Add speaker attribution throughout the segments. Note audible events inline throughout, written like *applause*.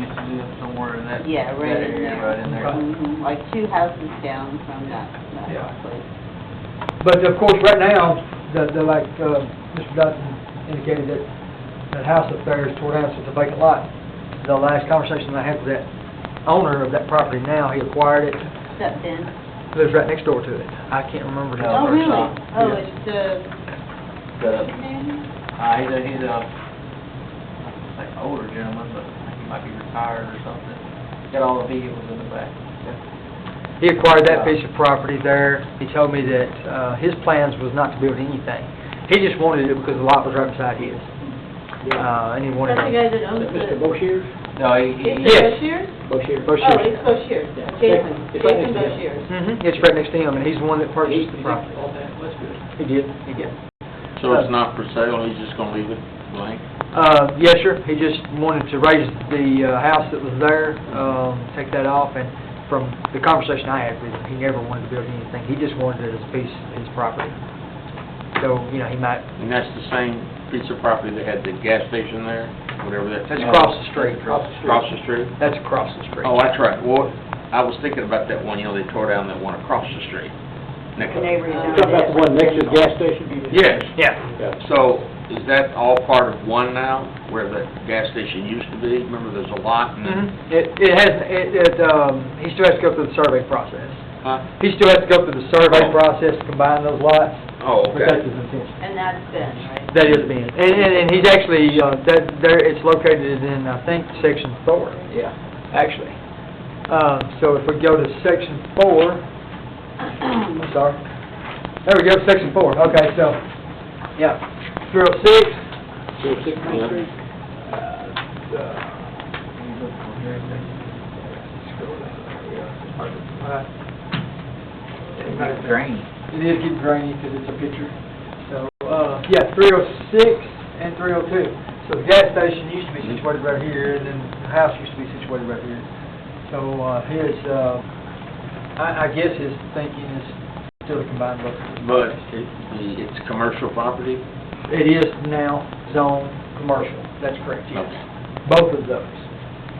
Speaker 1: live somewhere in that.
Speaker 2: Yeah, right
Speaker 1: that area,
Speaker 2: in there.
Speaker 1: Right in there.
Speaker 2: Mhm, Like two houses down from that,
Speaker 3: Yeah.
Speaker 2: that place.
Speaker 3: But of course, right now, the, the, like, uh, Mr. Dutton indicated that, that house up there is tore down, so it's a vacant lot. The last conversation I had with that owner of that property now, he acquired it,
Speaker 2: Except then,
Speaker 3: lives right next door to it. I can't remember his
Speaker 1: Oh,
Speaker 2: oh,
Speaker 3: name.
Speaker 2: really?
Speaker 1: shop,
Speaker 2: Oh,
Speaker 3: yeah.
Speaker 2: it's the,
Speaker 1: The- Uh, he's a, he's a, like older gentleman, but I think he might be retired or something. Got all the vehicles in the back.
Speaker 3: He acquired that piece of property there. He told me that, uh, his plans was not to build anything. He just wanted it because the lot was right beside his. Uh, and he
Speaker 4: That's
Speaker 3: wanted
Speaker 4: the
Speaker 3: it.
Speaker 4: guy that owns
Speaker 5: Mr.
Speaker 4: the...
Speaker 5: Boshiers?
Speaker 1: No, he, he,
Speaker 4: It's
Speaker 3: Yes.
Speaker 4: the Boshiers?
Speaker 5: Boshiers.
Speaker 4: Oh, it's Boshiers, Jason,
Speaker 5: It's right
Speaker 4: Jason
Speaker 5: next to him.
Speaker 4: Boshiers.
Speaker 3: Mm-hmm, it's right next to him, and he's the one that purchased the property.
Speaker 5: That's good.
Speaker 3: He did, he did.
Speaker 6: So it's not for sale, he's just gonna leave it blank?
Speaker 3: Uh, yes, sir. He just wanted to raise the uh, house that was there, um, take that off, and from the conversation I had with him, he never wanted to build anything. He just wanted it as a piece of his property. So, you know, he might,
Speaker 6: And that's the same piece of property that had the gas station there, whatever that...
Speaker 3: that's across the street.
Speaker 5: Across the
Speaker 6: Across the street?
Speaker 3: That's across the street.
Speaker 6: Oh, that's right. Well, I was thinking about that one, you know, they tore down that one across the street. Next-
Speaker 2: neighbor
Speaker 5: You talking about the one next to the gas station?
Speaker 6: Yes.
Speaker 3: Yeah,
Speaker 5: Yeah.
Speaker 6: So is that all part of one now, where the gas station used to be? Remember, there's a lot and then...
Speaker 3: mhm. It, it has, it, it, um, he still has to go through the survey process.
Speaker 6: Huh?
Speaker 3: He still has to go through the survey
Speaker 6: Oh.
Speaker 3: process to combine those lots,
Speaker 6: Oh,
Speaker 3: but that's
Speaker 6: okay.
Speaker 3: his intention.
Speaker 2: and that's Ben, right?
Speaker 3: That is being, and, and, and he's actually, uh, that, there, it's located in, I think, section four.
Speaker 5: Yeah.
Speaker 3: actually. Um, So if we go to section four, I'm sorry, there we go, section four, okay, so, yeah, three oh six,
Speaker 5: So Six Main Street?
Speaker 3: Uh, it is getting grainy because it's a picture, so, uh, yeah, three oh six and three oh two. So the gas station used to be situated right here, and then the house used to be situated right here. So uh, his, uh, I I guess his thinking is still to combine both.
Speaker 6: But it- it's commercial property?
Speaker 3: It is now zone commercial, that's correct, yes.
Speaker 6: Okay.
Speaker 3: Both of those.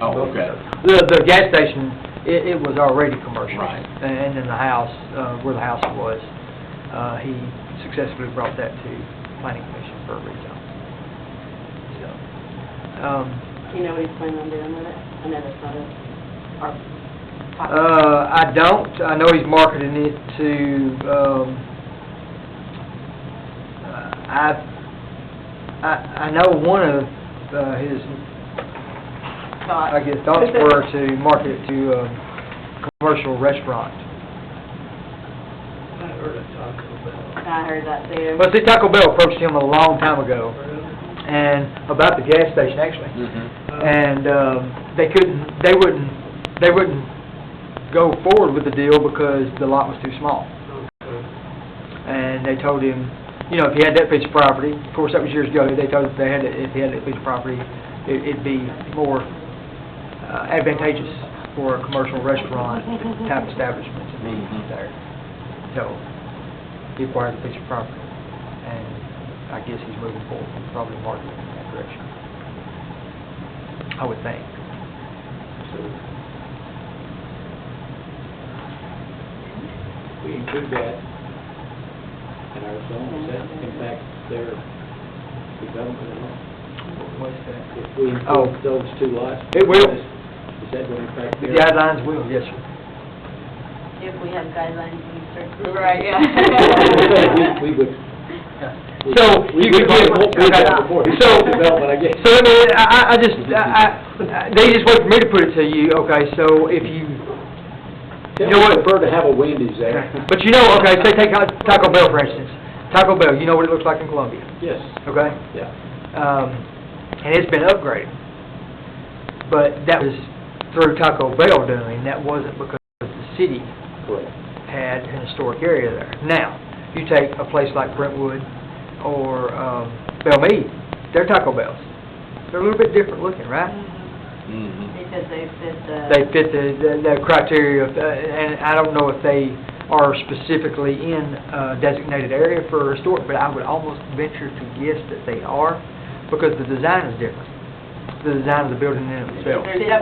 Speaker 6: Oh,
Speaker 3: Both of
Speaker 6: okay.
Speaker 3: those. The, the gas station, it, it was already commercial.
Speaker 6: Right.
Speaker 3: And then the house, uh, where the house was, uh, he successfully brought that to planning commission for a rezon. So, um,
Speaker 4: You know what he's planning on doing with it? I know that's not a, our...
Speaker 3: uh, I don't, I know he's marketing it to, um, uh, I, I, I know one of, uh, his
Speaker 4: thought.
Speaker 3: I guess thoughts
Speaker 4: *laughs*
Speaker 3: were to market it to a commercial restaurant.
Speaker 4: I heard that too.
Speaker 3: Well, see, Taco Bell approached him a long time ago, and about the gas station, actually.
Speaker 6: Mhm.
Speaker 3: And um, they couldn't, they wouldn't, they wouldn't go forward with the deal because the lot was too small. And they told him, you know, if he had that piece of property, of course, that was years ago, they told, they had, it- if he had that piece of property, it- it'd be more uh, advantageous for a commercial restaurant type establishment to be
Speaker 6: Mhm.
Speaker 3: there. So, he acquired the piece of property, and I guess he's moving forward, probably marketing in that direction. I would think.
Speaker 5: We include that in our zone, is that in fact their development at all? If we
Speaker 3: Oh.
Speaker 5: include those two lots?
Speaker 3: It will.
Speaker 5: Is is that going to impact
Speaker 3: The
Speaker 5: their?
Speaker 3: guidelines will, yes, sir.
Speaker 2: *clears throat* If we have guidelines, we start.
Speaker 4: Right, yeah.
Speaker 5: We we would.
Speaker 3: So,
Speaker 5: we-
Speaker 3: you
Speaker 5: we
Speaker 3: could
Speaker 5: probably
Speaker 3: give-
Speaker 5: won't be there
Speaker 3: okay.
Speaker 5: before
Speaker 3: So,
Speaker 5: development, I guess.
Speaker 3: So, I mean, I, I- I just, I, I- they just wait for me to put it to you, okay, so if you,
Speaker 5: They
Speaker 3: know what?
Speaker 5: would prefer to have a Wendy's there.
Speaker 3: but you know, okay, say take uh, Taco Bell, for instance. Taco Bell, you know what it looks like in Columbia,
Speaker 5: Yes,
Speaker 3: okay?
Speaker 5: yeah.
Speaker 3: um, and it's been upgraded. But that was through Taco Bell doing, that wasn't because the city
Speaker 5: Correct.
Speaker 3: had an historic area there. Now, you take a place like Brentwood or um, Bellmead, they're Taco Bells. They're a little bit different looking, right?
Speaker 2: *laughs*
Speaker 6: Mhm.
Speaker 2: Because they fit the.
Speaker 3: They fit the, the- the criteria, of, uh, and I don't know if they are specifically in a designated area for historic, but I would almost venture to guess that they are, because the design is different, the design of the building in itself.
Speaker 2: There's